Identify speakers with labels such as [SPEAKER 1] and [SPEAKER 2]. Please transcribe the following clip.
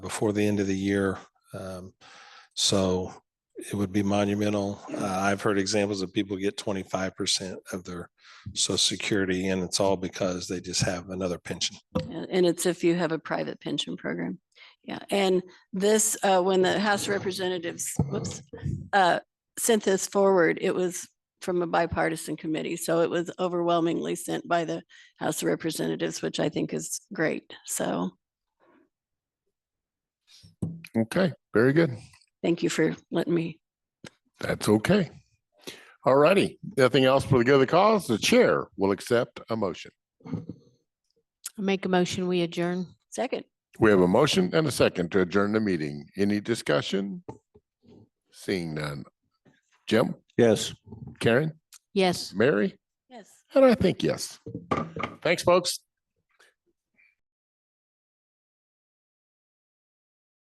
[SPEAKER 1] before the end of the year. Um, So it would be monumental. Uh, I've heard examples of people get twenty-five percent of their social security and it's all because they just have another pension.
[SPEAKER 2] And and it's if you have a private pension program. Yeah, and this, uh, when the House of Representatives, whoops, uh, sent this forward, it was from a bipartisan committee. So it was overwhelmingly sent by the House of Representatives, which I think is great. So
[SPEAKER 3] Okay, very good.
[SPEAKER 2] thank you for letting me.
[SPEAKER 3] That's okay. All righty. Nothing else for the good of the cause? The chair will accept a motion.
[SPEAKER 4] Make a motion, we adjourn.
[SPEAKER 2] Second,
[SPEAKER 3] We have a motion and a second to adjourn the meeting. Any discussion? Seeing none. Jim,
[SPEAKER 5] Yes.
[SPEAKER 3] Karen,
[SPEAKER 4] Yes.
[SPEAKER 3] Mary,
[SPEAKER 2] yes.
[SPEAKER 3] and I think yes. Thanks, folks.